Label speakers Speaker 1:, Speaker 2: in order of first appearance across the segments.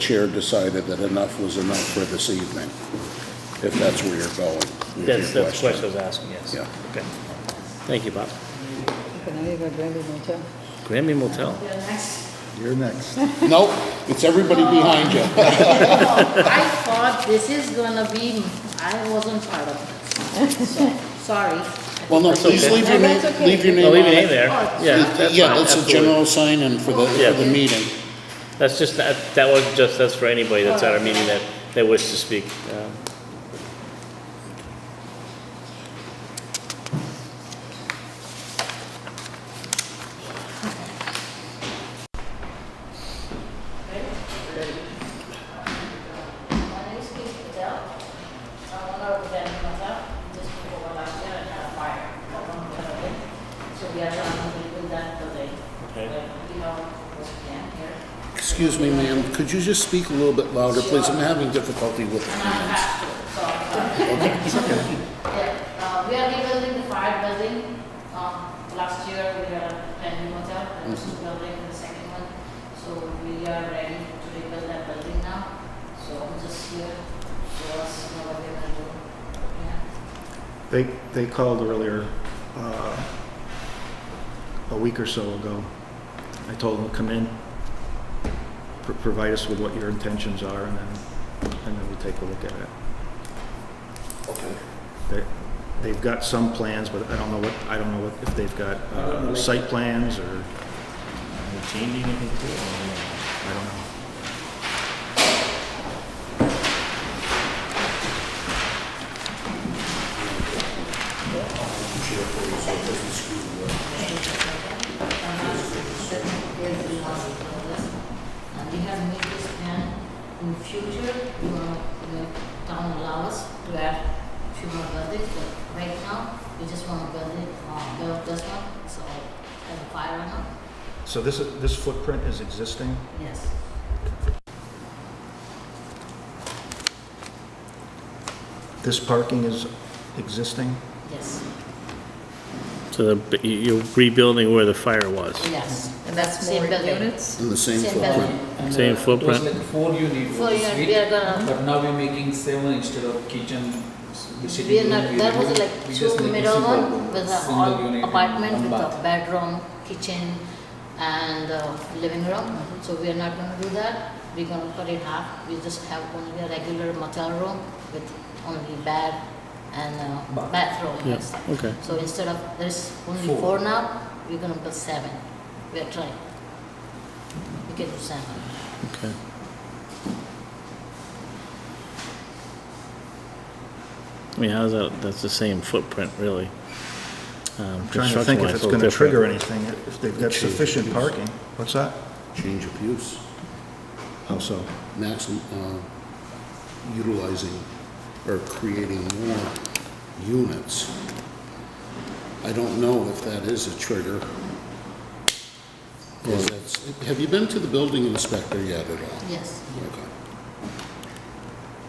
Speaker 1: chair decided that enough was enough for this evening, if that's where you're going. with your
Speaker 2: That's, that's the question I was asking, yes.
Speaker 1: Yeah.
Speaker 2: Okay. Thank you, Bob.
Speaker 3: Can I have a Grammy Motel?
Speaker 2: Grammy Motel.
Speaker 4: Yeah, next.
Speaker 5: You're next.
Speaker 1: Nope, it's everybody behind you.
Speaker 4: Oh, I thought this is gonna be, I wasn't part of it, so, sorry.
Speaker 1: Well, no,
Speaker 2: That's
Speaker 1: please
Speaker 2: okay.
Speaker 1: leave your
Speaker 3: No,
Speaker 1: name,
Speaker 3: that's okay.
Speaker 1: leave your name
Speaker 2: I'll
Speaker 1: on
Speaker 2: Oh, leave your name
Speaker 1: it.
Speaker 2: there. Yeah, that's
Speaker 1: Yeah,
Speaker 2: fine,
Speaker 1: that's a
Speaker 2: absolutely.
Speaker 1: general sign-in for the,
Speaker 2: Yeah.
Speaker 1: for the meeting.
Speaker 2: That's just, that, that was just, that's for anybody that's at our meeting that, that wishes to speak. Um,
Speaker 4: My name is Keith Patel. I'm an representative of that. This people were last year and had a fire. So we are trying to do that building.
Speaker 2: Okay.
Speaker 4: But, You know, we can't hear.
Speaker 1: Excuse me, ma'am, could you just speak a little bit louder, please? I'm having difficulty with the hands.
Speaker 4: Yeah, uh, we are rebuilding the fire building. Um, last year, we had a new hotel, and this is building the second one. So we are ready to rebuild that building now. So I'm just here to us, know what we're gonna do. Yeah.
Speaker 5: They, they called earlier, uh, a week or so ago. I told them, come in, pr- provide us with what your intentions are, and then, and then we'll take a look at it.
Speaker 1: Okay.
Speaker 5: They, they've got some plans, but I don't know what, I don't know what, if they've got, uh, site plans or,
Speaker 6: changing anything to it?
Speaker 5: I don't know.
Speaker 4: That is the last of this. And we have made this plan in future, uh, the town allows us to add few more buildings, but right now, we just want to build it, uh, build this one, so, and the fire one up.
Speaker 5: So this, is- this footprint is existing?
Speaker 4: Yes.
Speaker 5: This parking is existing?
Speaker 4: Yes.
Speaker 2: So the, but you- you're rebuilding where the fire was.
Speaker 4: Yes.
Speaker 3: And that's
Speaker 4: Same
Speaker 3: more
Speaker 4: building.
Speaker 3: units?
Speaker 1: In the same
Speaker 4: Same
Speaker 1: footprint.
Speaker 4: building.
Speaker 6: And,
Speaker 2: Same
Speaker 6: uh,
Speaker 2: footprint?
Speaker 6: It was like four unit
Speaker 4: So
Speaker 6: was
Speaker 4: yeah,
Speaker 6: suite,
Speaker 4: we are gonna,
Speaker 6: but now we're making seven instead of kitchen. s-
Speaker 4: we
Speaker 6: sitting
Speaker 4: are
Speaker 6: room,
Speaker 4: not,
Speaker 6: we
Speaker 4: there
Speaker 6: will-
Speaker 4: was like
Speaker 6: we
Speaker 4: two
Speaker 6: just make a
Speaker 4: middle
Speaker 6: single
Speaker 4: one with a
Speaker 6: single
Speaker 4: all
Speaker 6: unit and
Speaker 4: apartment
Speaker 6: one
Speaker 4: with a
Speaker 6: bath.
Speaker 4: bedroom, kitchen and uh, living room.
Speaker 6: Mm-hmm.
Speaker 4: So we are not gonna do that. We're gonna cut it half. We just have only a regular motel room with only bed and uh,
Speaker 6: Bath.
Speaker 4: bathroom
Speaker 2: Yeah,
Speaker 4: and stuff.
Speaker 2: okay.
Speaker 4: So instead of, there's only
Speaker 6: Four.
Speaker 4: four now, we're gonna put seven. We are trying. We can do seven.
Speaker 2: Okay. I mean, how's that, that's the same footprint, really. Um,
Speaker 5: I'm trying to think if it's gonna trigger anything, if they've got sufficient parking. What's that?
Speaker 1: Change of use,
Speaker 5: How so?
Speaker 1: maximum, uh, utilizing or creating more units. I don't know if that is a trigger. Is that's- Have you been to the building inspector yet at all?
Speaker 4: Yes.
Speaker 1: Okay.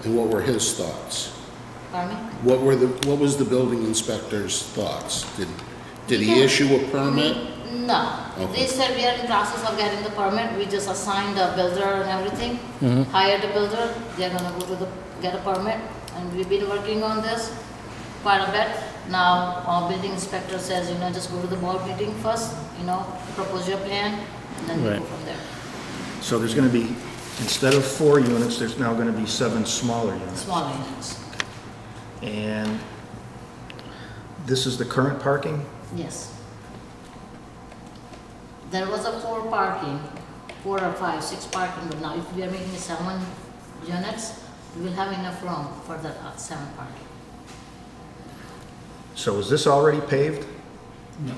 Speaker 1: And what were his thoughts?
Speaker 4: Pardon me?
Speaker 1: What were the, what was the building inspector's thoughts? Did, did he
Speaker 4: Yeah.
Speaker 1: issue a permit?
Speaker 4: No,
Speaker 1: Okay.
Speaker 4: they said we are in process of getting the permit, we just assigned a builder and everything,
Speaker 1: Mm-hmm.
Speaker 4: hired a builder, they're gonna go to the, get a permit, and we've been working on this quite a bit. Now, our building inspector says, you know, just go to the board meeting first, you know, propose your plan, and then we go
Speaker 2: Right.
Speaker 4: from there,
Speaker 5: So there's going to be, instead of four units, there's now going to be seven smaller units.
Speaker 4: small units,
Speaker 5: And this is the current parking?
Speaker 4: yes. There was a four parking, four or five, six parking, but now if we are making seven units, we will have enough room for the uh, seven parking.
Speaker 5: So is this already paved?
Speaker 6: No,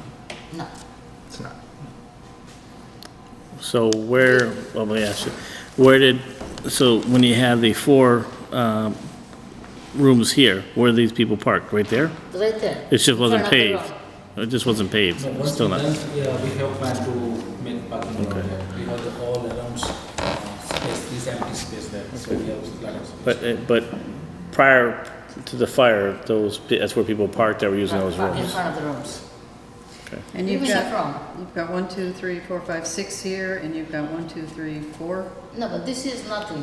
Speaker 4: No,
Speaker 5: It's not.
Speaker 2: So where, well, let me ask you, where did, so when you had the four um, rooms here, where are these people parked? Right there?
Speaker 4: right there.
Speaker 2: It just
Speaker 4: in
Speaker 2: wasn't
Speaker 4: front of the
Speaker 2: paved.
Speaker 4: road.
Speaker 2: It just wasn't paved,
Speaker 6: no, once
Speaker 2: still
Speaker 6: we
Speaker 2: not.
Speaker 6: done, yeah, we have planned to make parking lot there, we have the all around s- space, this empty space there, so we have like.
Speaker 2: But, uh, but prior to the fire, those, pe- that's where people parked that were using those
Speaker 4: In
Speaker 2: rooms.
Speaker 4: front of the rooms.
Speaker 3: And
Speaker 4: You
Speaker 3: you've
Speaker 4: mean
Speaker 3: got,
Speaker 4: from?
Speaker 3: you've got one, two, three, four, five, six here, and you've got one, two, three, four.
Speaker 4: No, but this is nothing.